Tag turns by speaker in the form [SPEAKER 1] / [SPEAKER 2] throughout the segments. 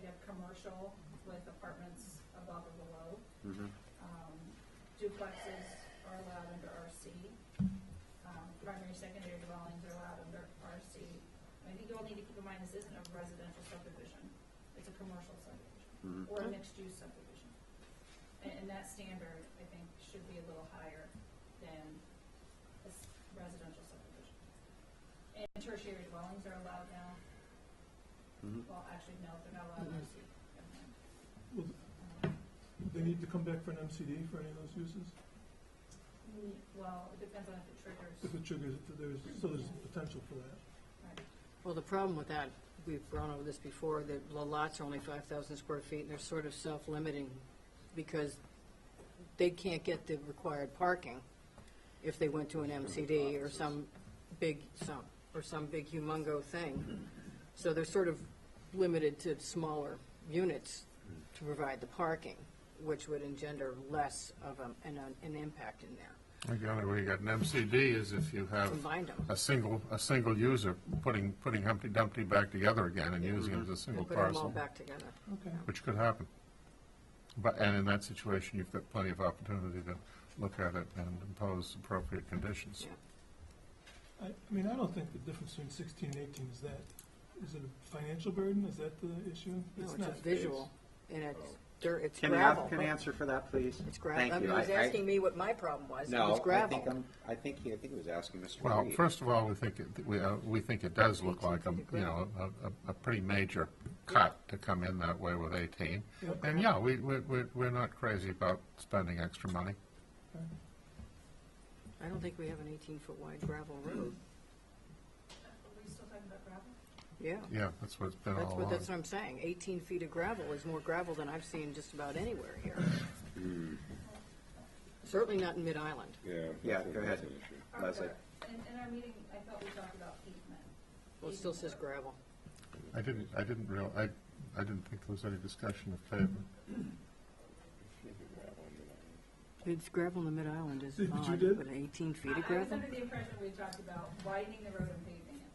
[SPEAKER 1] of commercial with apartments above or below.
[SPEAKER 2] Mm-hmm.
[SPEAKER 1] Um, Duplexes are allowed under RC. Um, Primary, secondary dwellings are allowed under RC. I think you all need to keep in mind, this isn't a residential subdivision. It's a commercial subdivision or a mixed-use subdivision. And, and that standard, I think, should be a little higher than a s- residential subdivision. And tertiary dwellings are allowed now. Well, actually, no, they're not allowed in
[SPEAKER 2] Mhm.
[SPEAKER 1] RC. Never mind.
[SPEAKER 3] Well,
[SPEAKER 1] Um,
[SPEAKER 3] They need to come back for an MCD for any of those uses?
[SPEAKER 1] mm, Well, it depends on if it triggers.
[SPEAKER 3] If it triggers, if there's, so there's potential for that.
[SPEAKER 1] Right.
[SPEAKER 2] Well, the problem with that, we've gone over this before, that the lots are only five thousand square feet, and they're sort of self-limiting, because they can't get the required parking if they went to an MCD or some big, some, or some big humongo thing. So they're sort of limited to smaller units to provide the parking, which would engender less of a- an, an impact in there,
[SPEAKER 4] I think the only way you got an MCD is if you have
[SPEAKER 2] combined them.
[SPEAKER 4] a single, a single user putting, putting Humpty Dumpty back together again and using it as a single
[SPEAKER 2] and Mm-hmm. Put them all
[SPEAKER 4] parcel,
[SPEAKER 2] back together.
[SPEAKER 3] Okay.
[SPEAKER 4] which could happen. But, and in that situation, you've got plenty of opportunity to look at it and impose appropriate conditions.
[SPEAKER 3] I,
[SPEAKER 2] Yeah.
[SPEAKER 3] I mean, I don't think the difference between sixteen and eighteen is that, is it a financial burden? Is that the issue?
[SPEAKER 2] No, it's
[SPEAKER 3] not.
[SPEAKER 2] a visual, and it's Oh. dirt, it's
[SPEAKER 5] Can the applicant
[SPEAKER 2] gravel.
[SPEAKER 5] answer for that, please?
[SPEAKER 2] It's gravel. I
[SPEAKER 5] Thank
[SPEAKER 2] mean,
[SPEAKER 5] you.
[SPEAKER 2] he was
[SPEAKER 5] I- I-
[SPEAKER 2] asking me what my problem was, it
[SPEAKER 6] No,
[SPEAKER 2] was
[SPEAKER 6] I think
[SPEAKER 2] gravel.
[SPEAKER 6] I'm, I think he, I think he was asking Mr.
[SPEAKER 4] Well,
[SPEAKER 6] Reed.
[SPEAKER 4] first of all, we think, it- we, uh, we think it does look like, a you know, a, a, a pretty major cut to come in that way with eighteen.
[SPEAKER 3] Yep.
[SPEAKER 4] And yeah, we, we, we're- we're not crazy about spending extra money.
[SPEAKER 2] I don't think we have an eighteen-foot wide gravel
[SPEAKER 1] Are
[SPEAKER 2] road,
[SPEAKER 1] we still talking about gravel?
[SPEAKER 2] yeah.
[SPEAKER 4] Yeah, that's what it's been all
[SPEAKER 2] That's what,
[SPEAKER 4] along.
[SPEAKER 7] uh,
[SPEAKER 2] that's what I'm saying, eighteen feet of gravel is more gravel than I've seen just about anywhere here. Certainly not in Mid-Island.
[SPEAKER 6] Yeah.
[SPEAKER 5] Hmm. Yeah,
[SPEAKER 6] that's a-
[SPEAKER 5] go
[SPEAKER 6] that's
[SPEAKER 5] ahead.
[SPEAKER 6] an issue.
[SPEAKER 1] Our-
[SPEAKER 5] Leslie.
[SPEAKER 1] In, in our meeting, I thought we talked about pavement.
[SPEAKER 2] Well, it still says gravel.
[SPEAKER 4] I didn't, I didn't real, I, I didn't think there was any discussion of pavement.
[SPEAKER 2] It's gravel in the Mid-Island is
[SPEAKER 3] Did you odd, did? but
[SPEAKER 2] eighteen feet
[SPEAKER 1] I- I was under the impression we talked about widening the road and paving it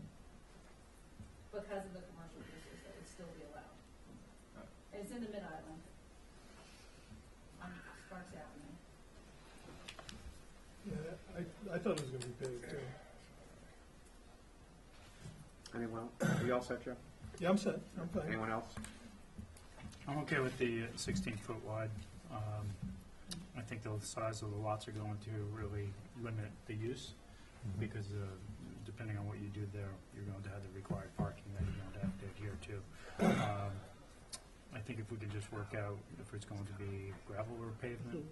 [SPEAKER 1] because of the commercial uses that would still be allowed. It's in the mid-island on Sparks Avenue.
[SPEAKER 3] Yeah, I, I thought it was gonna be paved too.
[SPEAKER 5] Anyone, you all set, Joe?
[SPEAKER 3] Yeah, I'm set, I'm fine.
[SPEAKER 5] Anyone else?
[SPEAKER 7] I'm okay with the sixteen-foot wide. Um, I think the size of the lots are going to really limit the use,
[SPEAKER 4] Mm-hmm.
[SPEAKER 7] because uh, depending on what you do there, you're going to have the required parking that you're going to have to adhere to. Um, I think if we could just work out if it's going to be gravel or pavement,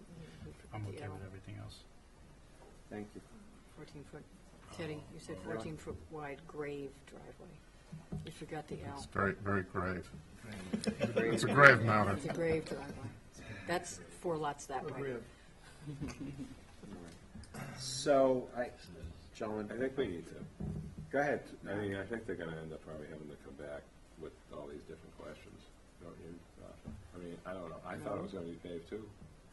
[SPEAKER 7] I'm okay with everything else.
[SPEAKER 5] Thank you.
[SPEAKER 2] Fourteen foot, Teddy, you said
[SPEAKER 5] Oh,
[SPEAKER 2] fourteen foot wide grave driveway. You forgot the L.
[SPEAKER 4] It's very, very grave.
[SPEAKER 5] Grave.
[SPEAKER 4] It's a grave matter.
[SPEAKER 2] It's a grave driveway. That's four lots that way.
[SPEAKER 3] Agreed.
[SPEAKER 5] So, I, gentlemen,
[SPEAKER 6] I think we need to.
[SPEAKER 5] go ahead.
[SPEAKER 6] I mean, I think they're gonna end up probably having to come back with all these different questions, don't you, Sasha? I mean, I don't know, I thought it was gonna be paved too.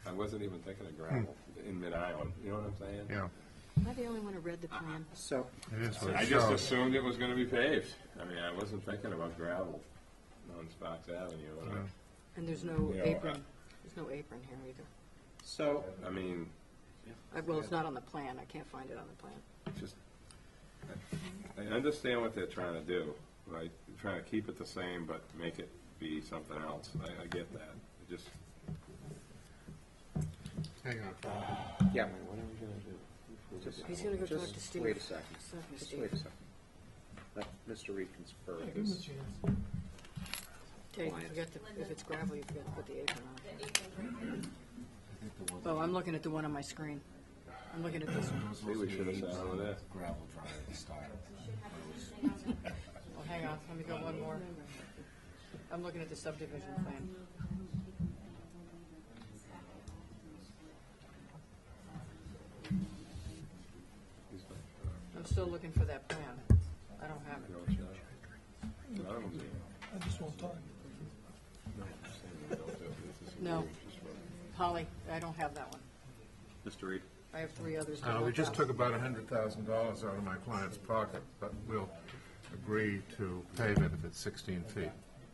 [SPEAKER 6] I wasn't even thinking of gravel in mid-island, you know what I'm saying?
[SPEAKER 4] Hmm. Yeah,
[SPEAKER 2] Am I the only one who read the plan?
[SPEAKER 5] So,
[SPEAKER 4] it is what
[SPEAKER 6] I
[SPEAKER 4] it
[SPEAKER 6] just
[SPEAKER 4] shows.
[SPEAKER 6] assumed it was gonna be paved. I mean, I wasn't thinking about gravel on Sparks Avenue. and I-
[SPEAKER 4] Yeah.
[SPEAKER 2] And there's no
[SPEAKER 6] Yeah.
[SPEAKER 2] apron, there's no apron here either.
[SPEAKER 5] so,
[SPEAKER 6] I mean,
[SPEAKER 2] Uh, Well, it's not on the plan, I can't find it on the plan.
[SPEAKER 6] just, I I understand what they're trying to do, right? They're Trying to keep it the same, but make it be something else. I, I get that. I Just,
[SPEAKER 4] Hang on.
[SPEAKER 5] yeah,
[SPEAKER 6] what are we gonna do?
[SPEAKER 5] just,
[SPEAKER 2] He's gonna go talk to
[SPEAKER 5] just
[SPEAKER 2] Steve.
[SPEAKER 5] wait a second.
[SPEAKER 2] Stop him,
[SPEAKER 5] Just
[SPEAKER 2] Steve.
[SPEAKER 5] wait a second. Let Mr. Reed confer
[SPEAKER 3] Yeah, give them a
[SPEAKER 5] this.
[SPEAKER 3] chance.
[SPEAKER 2] Teddy,
[SPEAKER 5] Compliance.
[SPEAKER 2] forget the, if it's gravel, you forgot to put the apron
[SPEAKER 1] The april's right there.
[SPEAKER 2] on. Oh, I'm looking at the one on my screen. I'm looking at this one.
[SPEAKER 6] Maybe we should have sat over there.
[SPEAKER 8] gravel drive to start.
[SPEAKER 2] Well, hang on, let me go one more. I'm looking at the subdivision plan. I'm still looking for that plan. I don't have it.
[SPEAKER 6] None of them
[SPEAKER 3] I just won't talk.
[SPEAKER 2] No. Polly, I don't have that one.
[SPEAKER 5] Mr. Reed,
[SPEAKER 2] I have three others. to
[SPEAKER 4] Uh, we
[SPEAKER 2] work
[SPEAKER 4] just
[SPEAKER 2] out.
[SPEAKER 4] took about a hundred thousand dollars out of my client's pocket, but we'll agree to pave it if it's sixteen feet.